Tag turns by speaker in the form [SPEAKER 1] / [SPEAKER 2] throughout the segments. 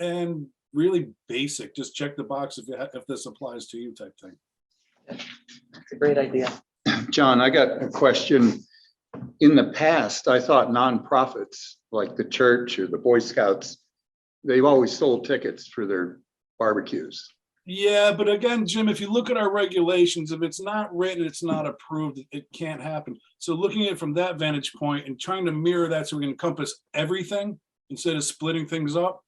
[SPEAKER 1] and really basic, just check the box if, you ha- if this applies to you type thing.
[SPEAKER 2] It's a great idea.
[SPEAKER 3] John, I got a question. In the past, I thought nonprofits like the church or the Boy Scouts, they've always sold tickets for their barbecues.
[SPEAKER 1] Yeah, but again, Jim, if you look at our regulations, if it's not written, it's not approved, it can't happen. So looking at it from that vantage point and trying to mirror that so we can encompass everything instead of splitting things up.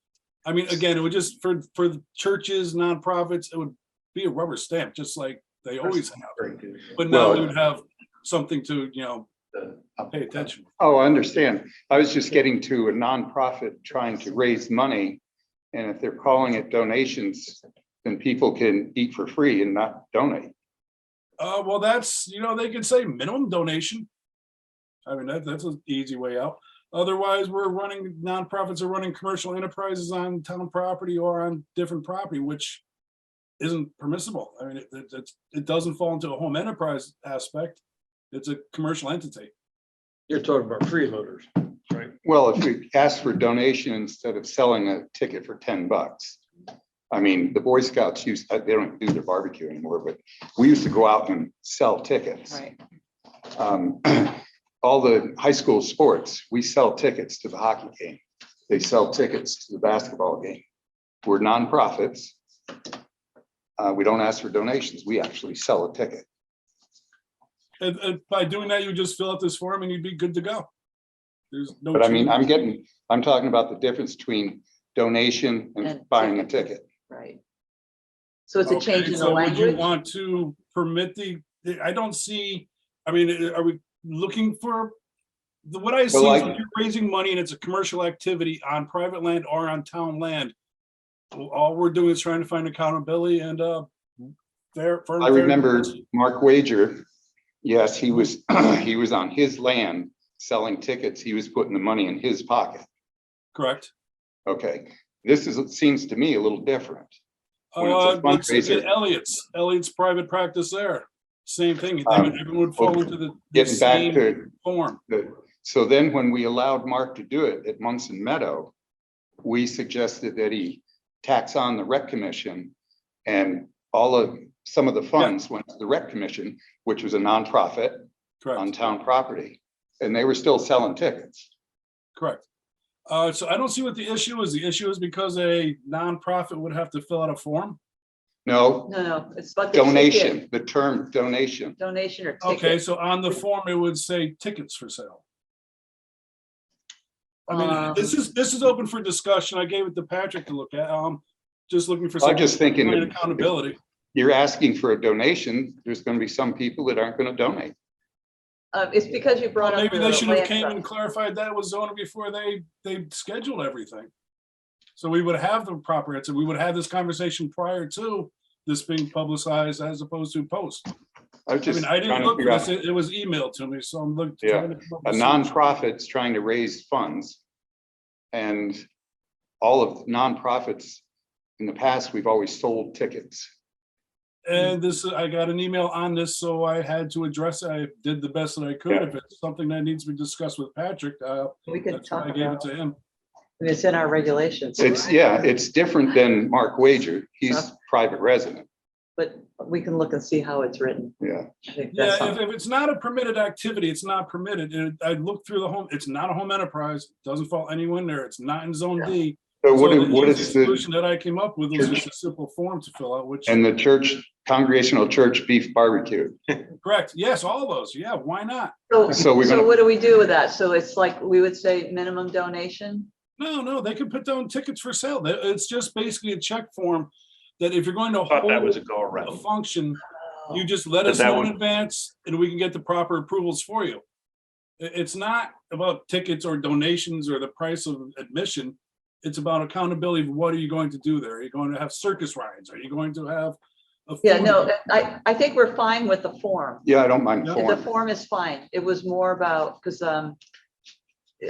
[SPEAKER 1] I mean, again, it would just, for, for churches, nonprofits, it would be a rubber stamp, just like they always have. But now we would have something to, you know, pay attention.
[SPEAKER 3] Oh, I understand. I was just getting to a nonprofit trying to raise money. And if they're calling it donations, then people can eat for free and not donate.
[SPEAKER 1] Uh, well, that's, you know, they could say minimum donation. I mean, that, that's an easy way out. Otherwise, we're running, nonprofits are running commercial enterprises on town property or on different property, which isn't permissible. I mean, it, it, it's- it doesn't fall into a home enterprise aspect. It's a commercial entity.
[SPEAKER 4] You're talking about freeloaders, right?
[SPEAKER 3] Well, if we ask for donation instead of selling a ticket for ten bucks. I mean, the Boy Scouts used, they don't do their barbecue anymore, but we used to go out and sell tickets.
[SPEAKER 2] Right.
[SPEAKER 3] Um, All the high school sports, we sell tickets to the hockey game. They sell tickets to the basketball game. We're nonprofits. Uh, we don't ask for donations. We actually sell a ticket.
[SPEAKER 1] And, and by doing that, you just fill out this form and you'd be good to go. There's no.
[SPEAKER 3] But I mean,
[SPEAKER 1] change.
[SPEAKER 3] I'm getting, I'm talking about the difference between donation and
[SPEAKER 2] And
[SPEAKER 3] buying a
[SPEAKER 2] ticket.
[SPEAKER 3] ticket.
[SPEAKER 2] Right. So it's a
[SPEAKER 1] Okay,
[SPEAKER 2] change in the
[SPEAKER 1] so would you
[SPEAKER 2] language.
[SPEAKER 1] Want to permit the, I don't see, I mean, uh, are we looking for? The, what I see is
[SPEAKER 3] like-
[SPEAKER 1] if you're raising money and it's a commercial activity on private land or on town land. All we're doing is trying to find accountability and, uh, fair. fair-
[SPEAKER 3] I remember Mark Wager, yes, he was, he was on his land selling tickets. He was putting the money in his pocket.
[SPEAKER 1] Correct.
[SPEAKER 3] Okay, this is, it seems to me a little different. When it's a
[SPEAKER 1] Uh, let's look at
[SPEAKER 3] fundraiser.
[SPEAKER 1] Elliott's, Elliott's private practice there, same thing, I mean, everyone would fall into the. the
[SPEAKER 3] Um, Getting back
[SPEAKER 1] same
[SPEAKER 3] to,
[SPEAKER 1] Form,
[SPEAKER 3] the so then when we allowed Mark to do it at Munson Meadow, we suggested that he tax on the rec commission and all of, some of the funds went to the rec commission, which was a nonprofit on
[SPEAKER 1] correct,
[SPEAKER 3] town property. And they were still selling tickets.
[SPEAKER 1] correct. Uh, so I don't see what the issue is, the issue is because a nonprofit would have to fill out a form.
[SPEAKER 3] No,
[SPEAKER 2] No, no, it's about the ticket.
[SPEAKER 3] Donation, the term donation.
[SPEAKER 2] Donation or ticket.
[SPEAKER 1] Okay, so on the form, it would say tickets for sale. I mean,
[SPEAKER 2] Um,
[SPEAKER 1] this is, this is open for discussion. I gave it to Patrick to look at. Um, just looking for
[SPEAKER 3] I'm
[SPEAKER 1] some
[SPEAKER 3] just thinking,
[SPEAKER 1] kind of
[SPEAKER 3] if
[SPEAKER 1] accountability.
[SPEAKER 3] you're asking for a donation, there's gonna be some people that aren't gonna donate.
[SPEAKER 2] Uh, it's because you brought up.
[SPEAKER 1] Maybe
[SPEAKER 2] the
[SPEAKER 1] they should have
[SPEAKER 2] land
[SPEAKER 1] came and
[SPEAKER 2] trust.
[SPEAKER 1] clarified that was zoning before they, they scheduled everything. So we would have the proper answer. We would have this conversation prior to this being publicized as opposed to post.
[SPEAKER 3] I was
[SPEAKER 1] I
[SPEAKER 3] just
[SPEAKER 1] mean, I
[SPEAKER 3] trying
[SPEAKER 1] didn't
[SPEAKER 3] to
[SPEAKER 1] look,
[SPEAKER 3] figure
[SPEAKER 1] at this.
[SPEAKER 3] out,
[SPEAKER 1] it it was emailed to me, so I'm looking.
[SPEAKER 3] Yeah,
[SPEAKER 1] trying to come up
[SPEAKER 3] a
[SPEAKER 1] with some-
[SPEAKER 3] nonprofit's trying to raise funds. And all of nonprofits, in the past, we've always sold tickets.
[SPEAKER 1] And this, I got an email on this, so I had to address, it. I did the best that I could.
[SPEAKER 3] Yeah.
[SPEAKER 1] If it's something that needs to be discussed with Patrick, uh,
[SPEAKER 2] We can
[SPEAKER 1] that's why
[SPEAKER 2] talk
[SPEAKER 1] I gave it
[SPEAKER 2] about,
[SPEAKER 1] to him.
[SPEAKER 2] it's in our regulations.
[SPEAKER 3] It's, yeah, it's different than Mark Wager. He's private resident,
[SPEAKER 2] But we can look and see how it's written.
[SPEAKER 3] yeah.
[SPEAKER 2] I think
[SPEAKER 1] Yeah,
[SPEAKER 2] that's
[SPEAKER 1] if,
[SPEAKER 2] something.
[SPEAKER 1] if it's not a permitted activity, it's not permitted. And I looked through the home, it's not a home enterprise, doesn't fall anywhere near, it's not in zone D.
[SPEAKER 3] So what,
[SPEAKER 1] So
[SPEAKER 3] do-
[SPEAKER 1] the
[SPEAKER 3] what
[SPEAKER 1] easiest
[SPEAKER 3] is the,
[SPEAKER 1] Solution that I came up with was just a simple form to fill out, which,
[SPEAKER 3] and the church, Congregational Church Beef Barbecue?
[SPEAKER 1] correct, yes, all those, yeah, why not?
[SPEAKER 3] So we're
[SPEAKER 2] So
[SPEAKER 3] gonna-
[SPEAKER 2] what do we do with that? So it's like, we would say minimum donation?
[SPEAKER 1] No, no, they could put down tickets for sale. That- It's just basically a check form that if you're going to
[SPEAKER 4] Thought that was
[SPEAKER 1] hold
[SPEAKER 4] a go
[SPEAKER 1] a
[SPEAKER 4] around.
[SPEAKER 1] function,
[SPEAKER 2] Oh,
[SPEAKER 1] You just let
[SPEAKER 4] But
[SPEAKER 1] us
[SPEAKER 4] that
[SPEAKER 1] know in
[SPEAKER 4] one-
[SPEAKER 1] advance and we can get the proper approvals for you. I- it's not about tickets or donations or the price of admission. It's about accountability. of What are you going to do there? Are you going to have circus rides? Are you going to have? a
[SPEAKER 2] Yeah,
[SPEAKER 1] food uh,
[SPEAKER 2] no,
[SPEAKER 1] truck?
[SPEAKER 2] I, I think we're fine with the form.
[SPEAKER 3] Yeah, I don't mind
[SPEAKER 1] Yeah.
[SPEAKER 2] The
[SPEAKER 3] form.
[SPEAKER 2] form is fine. It was more about, because um,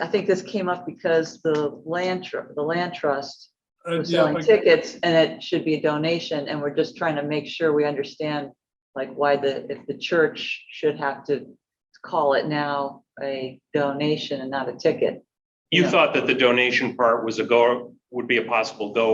[SPEAKER 2] I think this came up because the land, tr- the land trust
[SPEAKER 1] Uh,
[SPEAKER 2] was
[SPEAKER 1] yeah,
[SPEAKER 2] selling
[SPEAKER 1] like-
[SPEAKER 2] tickets and it should be a donation. And we're just trying to make sure we understand like why the, if the church should have to call it now a donation and not a ticket.
[SPEAKER 5] You
[SPEAKER 2] Yeah.
[SPEAKER 5] thought that the donation part was a go, would be a possible go